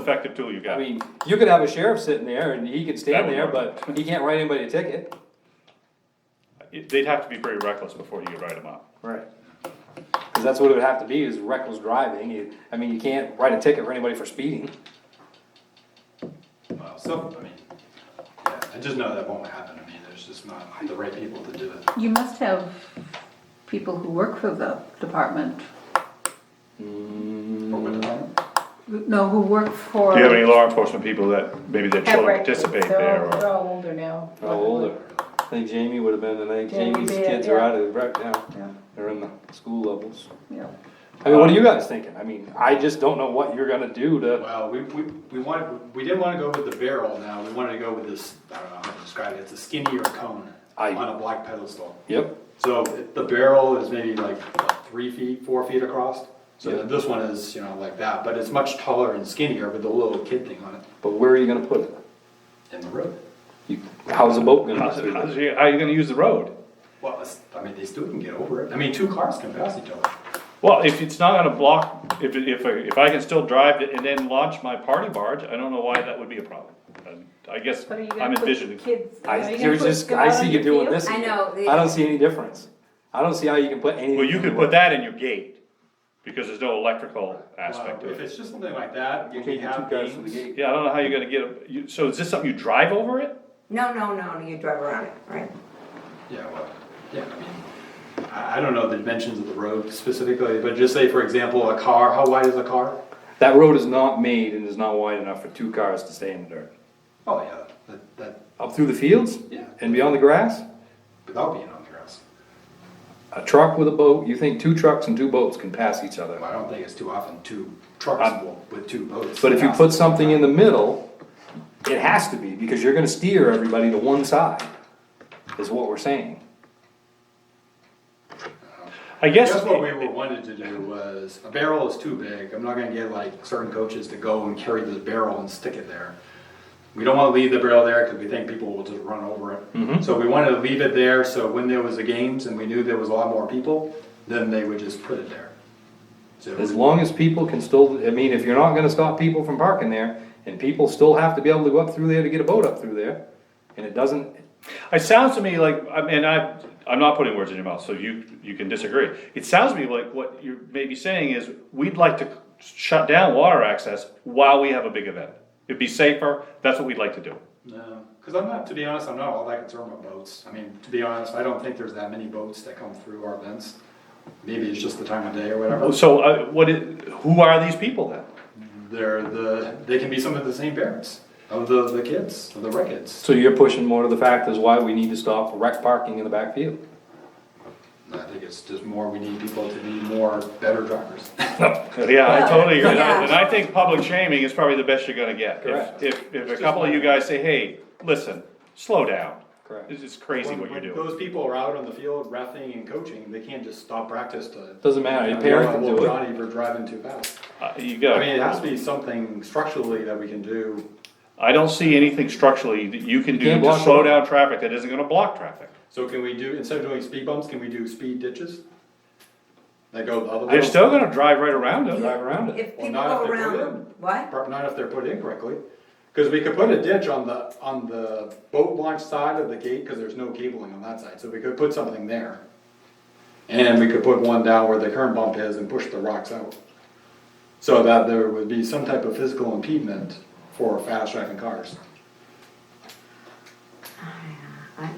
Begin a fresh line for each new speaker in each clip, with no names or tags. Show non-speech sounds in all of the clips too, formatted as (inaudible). effective tool you
I
got.
mean, you could have a sheriff sitting there and he could
That
stand
would
there,
work.
but he can't write anybody a ticket.
It- They'd have to be pretty reckless before you could write them up.
Right. Cause that's what it would have to be, is reckless driving, you, I mean, you can't write a ticket for anybody for speeding.
Well, so, I mean, yeah, I just know that won't happen. I mean, there's just not the right people to do it.
You must have people who work for the department,
Mm,
Or would it?
no, who work for.
Do you have any law enforcement people that, maybe their
Have
children
records.
participate
They're
there
all-
or?
They're all older now.
How old are, I think Jamie would have been, and I think
Jamie
Jamie's
did,
kids are
yeah.
out of rec now,
Yeah,
they're in the school levels.
yeah.
I mean, what are you guys thinking? I mean, I just don't know what you're gonna do to,
Well, we, we, we wanted, we didn't wanna go with the barrel now. We wanted to go with this, I don't know how to describe it. It's a skinnier cone
I-
on a black pedestal.
yep,
So it- the barrel is maybe like what, three feet, four feet across. So
Yeah.
this one is, you know, like that, but it's much taller and skinnier with the little kid thing on it.
but where are you gonna put it?
In the road.
You, how's the boat gonna?
How's
get
it-
through
how's
there?
it- How are you gonna use the road?
Well, it's- I mean, they still can get over it. I mean, two cars can pass each other.
Well, if it's not gonna block, if, it- if, I- if I can still drive it and then launch my party barge, I don't know why that would be a problem. And I guess
But are you
I'm
gonna put
envisioning,
kids? are
I,
you gonna
you're
put
just,
them
I
out on
see you
the
doing
field?
this.
I know, the-
I don't see any difference. I don't see how you can put anything.
well, you could
anywhere.
put that in your gate, because there's no electrical aspect
Well,
of
If
it.
it's just something like that, you
Okay, you
can
two
have
guys from the
beams.
gate.
Yeah, I don't know how you're gonna get, a- you- so is this something you drive over it?
No, no, no, you drive around it, right?
Yeah, well, yeah, I mean, I, I don't know the dimensions of the road specifically, but just say, for example, a car, how wide is a car?
That road is not made and is not wide enough for two cars to stay in the dirt.
Oh, yeah, that, that,
Up through the fields?
Yeah.
And beyond the grass?
without being on the grass.
A truck with a boat, you think two trucks and two boats can pass each
Well,
other.
I don't think it's too often two trucks
Um,
will- with two boats.
But if you put something in the middle, it has to be, because you're gonna steer everybody to one side, is what we're saying.
I
I
guess.
guess what we were wanted to do was, a barrel is too big, I'm not gonna get like certain coaches to go and carry the barrel and stick it there. We don't wanna leave the barrel there, cause we think people will just run over it. So we wanted to leave it there, so when there was the games and we knew there was a lot more people, then they would just put it there. So,
As long as people can still, I mean, if you're not gonna stop people from parking there, and people still have to be able to go up through there to get a boat up through there, and it doesn't,
It sounds to me like, I mean, I, I'm not putting words in your mouth, so you, you can disagree. It sounds to me like what you're maybe saying is, we'd like to shut down water access while we have a big event. It'd be safer, that's what we'd like to do.
no, cause I'm not, to be honest, I'm not all that concerned about boats. I mean, to be honest, I don't think there's that many boats that come through our events. Maybe it's just the time of day or whatever.
So, uh, what, it- who are these people then?
They're the, they can be some of the same parents of the, the kids, of the rec kids.
so you're pushing more to the fact is why we need to stop wreck parking in the backfield.
I think it's just more, we need people to be more better
(laughs)
drivers.
Yeah, I totally agree, and
Yeah.
I and I think public shaming is probably the best you're gonna get. If-
Correct.
If, if a couple of you guys say, hey, listen, slow down.
Correct.
This is crazy what you're
When
doing.
Those people are out on the field refing and coaching, they can't just stop practice to.
Doesn't matter, your
Yeah,
parent can
well,
do it.
Johnny, we're driving too fast.
Uh, You
I
go.
mean, it has to be something structurally that we can do.
I don't see anything structurally that you can do
Can't
to
block
slow
it.
down traffic that isn't gonna block traffic.
So can we do, instead of doing speed bumps, can we do speed ditches? That go the other way?
They're still gonna drive right around it.
Drive around it.
If
Well,
people
not
go
if they're
around,
good.
what?
Or Not if they're put in correctly, because we could put a ditch on the, on the boat launch side of the gate, because there's no cabling on that side, so we could put something there. And we could put one down where the current bump is and push the rocks out. So that there would be some type of physical impediment for fast driving cars.
Oh, I-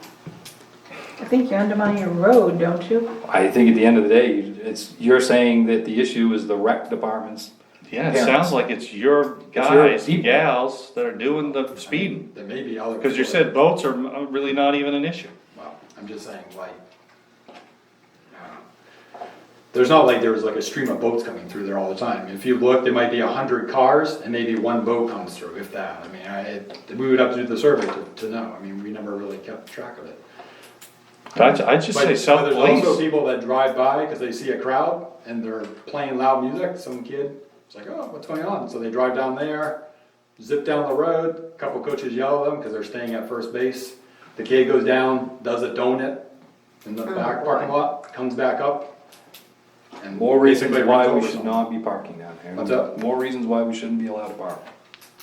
I think you undermine your road, don't you?
I think at the end of the day, you- it's, you're saying that the issue is the rec departments.
Yeah, it
Parents.
sounds like it's your
your
guys,
people.
gals that are doing the speeding.
There may be other.
Cause you said boats are uh, really not even an issue.
Well, I'm just saying, like. I don't know. There's not like there was like a stream of boats coming through there all the time. If you look, there might be a hundred cars and maybe one boat comes through, if that. I mean, I, it- we would have to do the survey to, to know. I mean, we never really kept track of it.
I, ju- I just
But
say
there's also
self-police.
people that drive by because they see a crowd and they're playing loud music, some kid, it's like, oh, what's going on? So they drive down there, zip down the road, couple coaches yell at them because they're staying at first base. The kid goes down, does a donut in the back parking lot, comes back up. and
More reasons
basically
why
runs
we
over
should
someone.
not be parking down there.
What's that?
More reasons why we shouldn't be allowed to park.